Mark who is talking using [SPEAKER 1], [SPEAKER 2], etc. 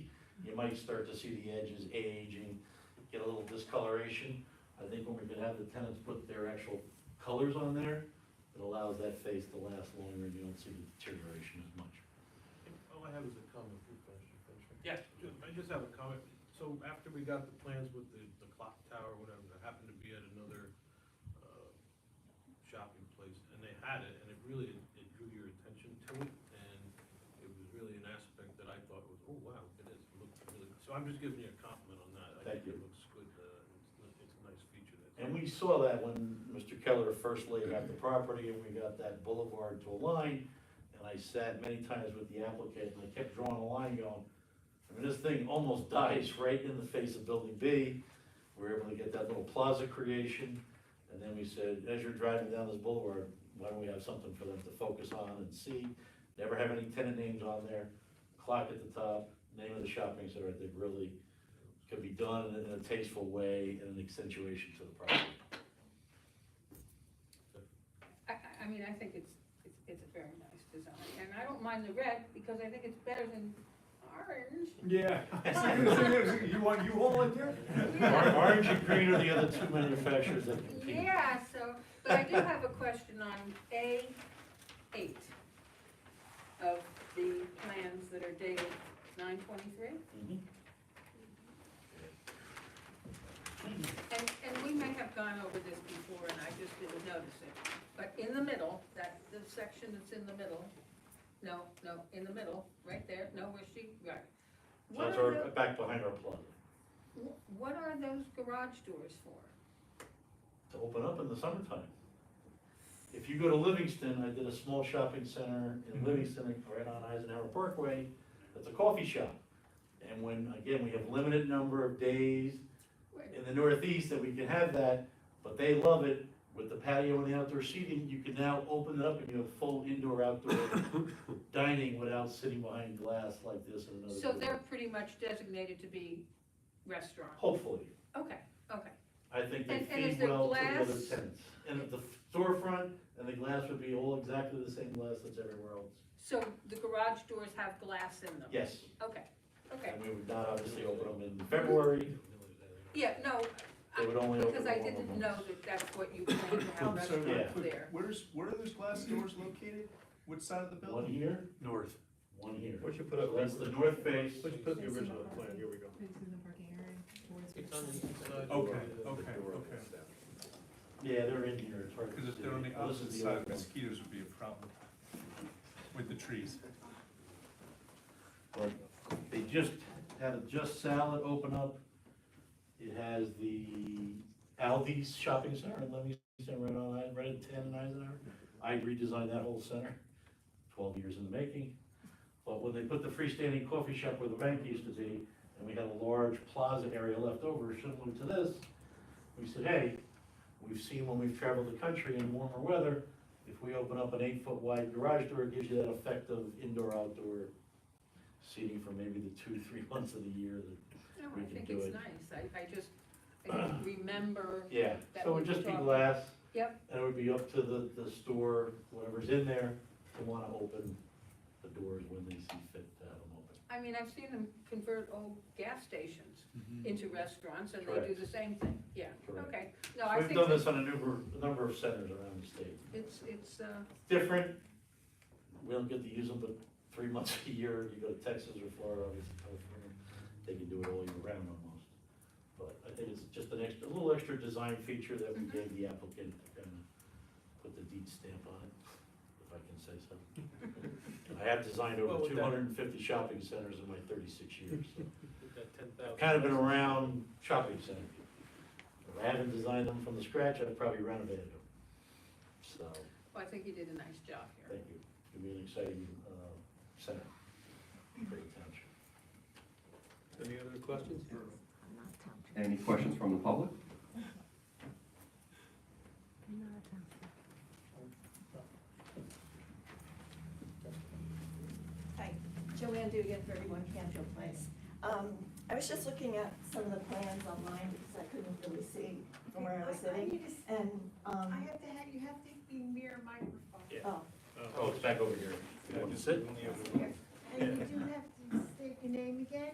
[SPEAKER 1] you might start to see the edges aging, get a little discoloration. I think when we could have the tenants put their actual colors on there, it allows that face to last longer and you don't see the deterioration as much.
[SPEAKER 2] All I have is a comment, good question, thanks. Rick.
[SPEAKER 3] Yeah.
[SPEAKER 2] Ju- I just have a comment, so after we got the plans with the, the clock tower, whatever, that happened to be at another, uh, shopping place, and they had it, and it really, it drew your attention to it, and it was really an aspect that I thought was, oh, wow, it is, it looks really, so I'm just giving you a compliment on that. I
[SPEAKER 1] Thank you.
[SPEAKER 2] think It looks good, uh, it's, it's a nice feature that's.
[SPEAKER 1] And we saw that when Mr. Keller first laid out the property and we got that boulevard to align. And I sat many times with the applicant and I kept drawing a line going, I mean, this thing almost dies right in the face of Building B. We were able to get that little plaza creation. And then we said, as you're driving down this boulevard, why don't we have something for them to focus on and see? Never have any tenant names on there, clock at the top, name of the shopping center, I think really could be done in a tasteful way and an accentuation to the property.
[SPEAKER 4] I, I, I mean, I think it's, it's, it's a very nice design, and I don't mind the red, because I think it's better than orange.
[SPEAKER 5] Yeah. You want, you all in there?
[SPEAKER 1] Or- Orange and green are the other two manufacturers that compete.
[SPEAKER 4] Yeah, so, but I do have a question on A eight of the plans that are dated nine twenty-three.
[SPEAKER 1] Mhm.
[SPEAKER 4] And, and we may have gone over this before and I just didn't notice it, but in the middle, that, the section that's in the middle, no, no, in the middle, right there, no, where she, right.
[SPEAKER 1] So
[SPEAKER 4] What
[SPEAKER 1] that's
[SPEAKER 4] are
[SPEAKER 1] our, back behind our plaza.
[SPEAKER 4] tho- wh- what are those garage doors for?
[SPEAKER 1] to open up in the summertime. If you go to Livingston, I did a small shopping center in Livingston, right on Eisenhower Parkway, that's a coffee shop. And when, again, we have limited number of days
[SPEAKER 4] Wait,
[SPEAKER 1] in the northeast that we can have that, but they love it with the patio and the outdoor seating, you can now open it up and you have full indoor, outdoor dining without sitting behind glass like this in another.
[SPEAKER 4] So
[SPEAKER 1] building.
[SPEAKER 4] they're pretty much designated to be restaurant,
[SPEAKER 1] Hopefully,
[SPEAKER 4] okay, okay.
[SPEAKER 1] I think they
[SPEAKER 4] And- and is
[SPEAKER 1] feed
[SPEAKER 4] there
[SPEAKER 1] well to the other
[SPEAKER 4] glass?
[SPEAKER 1] tenants. And the storefront and the glass would be all exactly the same glass that's everywhere else.
[SPEAKER 4] So the garage doors have glass in them?
[SPEAKER 1] Yes,
[SPEAKER 4] Okay, okay,
[SPEAKER 1] and we would not obviously open them in February,
[SPEAKER 4] yeah, no,
[SPEAKER 1] they would only open
[SPEAKER 4] because
[SPEAKER 1] them
[SPEAKER 4] I
[SPEAKER 1] on
[SPEAKER 4] didn't
[SPEAKER 1] the
[SPEAKER 4] know that that's what you planned to have
[SPEAKER 5] So,
[SPEAKER 1] Yeah.
[SPEAKER 4] restaurants there.
[SPEAKER 5] Where's, where are those glass doors located? Which side of the
[SPEAKER 1] One
[SPEAKER 5] building?
[SPEAKER 1] here,
[SPEAKER 3] North.
[SPEAKER 1] one here.
[SPEAKER 6] What you put
[SPEAKER 1] So
[SPEAKER 6] up,
[SPEAKER 1] that's the north face,
[SPEAKER 6] what you put in the original plan, here we go.
[SPEAKER 7] It's in the parking area. towards
[SPEAKER 2] It's
[SPEAKER 7] the
[SPEAKER 2] on the
[SPEAKER 7] side.
[SPEAKER 2] inside.
[SPEAKER 5] Okay,
[SPEAKER 2] The- the
[SPEAKER 5] okay,
[SPEAKER 2] door.
[SPEAKER 5] okay.
[SPEAKER 1] yeah, they're in here, it's hard to
[SPEAKER 5] Because if
[SPEAKER 1] see.
[SPEAKER 5] they're on the
[SPEAKER 1] Well, this
[SPEAKER 5] opposite
[SPEAKER 1] is other
[SPEAKER 5] side,
[SPEAKER 1] one.
[SPEAKER 5] mosquitoes would be a problem with the trees.
[SPEAKER 1] but they just had a Just Salad open up. It has the Aldi's shopping center in Livingston, right on, I- right at ten and Eisenhower. I redesigned that whole center, twelve years in the making. But when they put the freestanding coffee shop where the bank used to be, and we had a large plaza area left over similar to this, we said, hey, we've seen when we've traveled the country in warmer weather, if we open up an eight-foot wide garage door, it gives you that effect of indoor-outdoor seating for maybe the two, three months of the year that.
[SPEAKER 4] No,
[SPEAKER 1] we
[SPEAKER 4] I
[SPEAKER 1] can
[SPEAKER 4] think
[SPEAKER 1] do it.
[SPEAKER 4] it's nice, I, I just, I just remember,
[SPEAKER 1] Yeah.
[SPEAKER 4] That
[SPEAKER 1] So it
[SPEAKER 4] we
[SPEAKER 1] would just be
[SPEAKER 4] talked-
[SPEAKER 1] glass.
[SPEAKER 4] Yep.
[SPEAKER 1] And it would be up to the, the store, whatever's in there, to wanna open the doors when they see fit to have them open.
[SPEAKER 4] I mean, I've seen them convert old gas stations
[SPEAKER 1] Mm-hmm.
[SPEAKER 4] into restaurants, and they do
[SPEAKER 1] Mm. Correct.
[SPEAKER 4] the same thing, yeah,
[SPEAKER 1] Correct.
[SPEAKER 4] okay. No, I
[SPEAKER 1] We've
[SPEAKER 4] think
[SPEAKER 1] done
[SPEAKER 4] that
[SPEAKER 1] this on a number, a number of centers around the state.
[SPEAKER 4] it's, it's, uh,
[SPEAKER 1] Different, we don't get to use them but three months a year, you go to Texas or Florida, obviously California, they can do it all year round almost. But I think it's just an extra, a little extra design feature that we
[SPEAKER 4] Mhm.
[SPEAKER 1] gave the applicant to kind of put the deed stamp on it, if I can say so. I have designed
[SPEAKER 2] Well,
[SPEAKER 1] over
[SPEAKER 2] with
[SPEAKER 1] two
[SPEAKER 2] that-
[SPEAKER 1] hundred and fifty shopping centers in my thirty-six years, so
[SPEAKER 2] With that ten
[SPEAKER 1] I've
[SPEAKER 2] thousand.
[SPEAKER 1] kind of been around shopping center. If I haven't designed them from the scratch, I've probably renovated them. So,
[SPEAKER 4] well, I think you did a nice job here.
[SPEAKER 1] thank you. It'll be an exciting, uh, center for the township.
[SPEAKER 6] Any other questions?
[SPEAKER 7] I'm not touching.
[SPEAKER 8] Any questions from the public?
[SPEAKER 7] I'm not touching.
[SPEAKER 9] Hi, Joanne Dugan, 31 Canfield Place. Um, I was just looking at some of the plans online because I couldn't really see from where I was sitting. And,
[SPEAKER 10] I
[SPEAKER 9] um,
[SPEAKER 10] have to have, you have to be near microphone.
[SPEAKER 9] oh,
[SPEAKER 6] Uh,
[SPEAKER 1] Oh, it's back over here. You want to sit?
[SPEAKER 9] it's here.
[SPEAKER 10] And you do have to state your name again?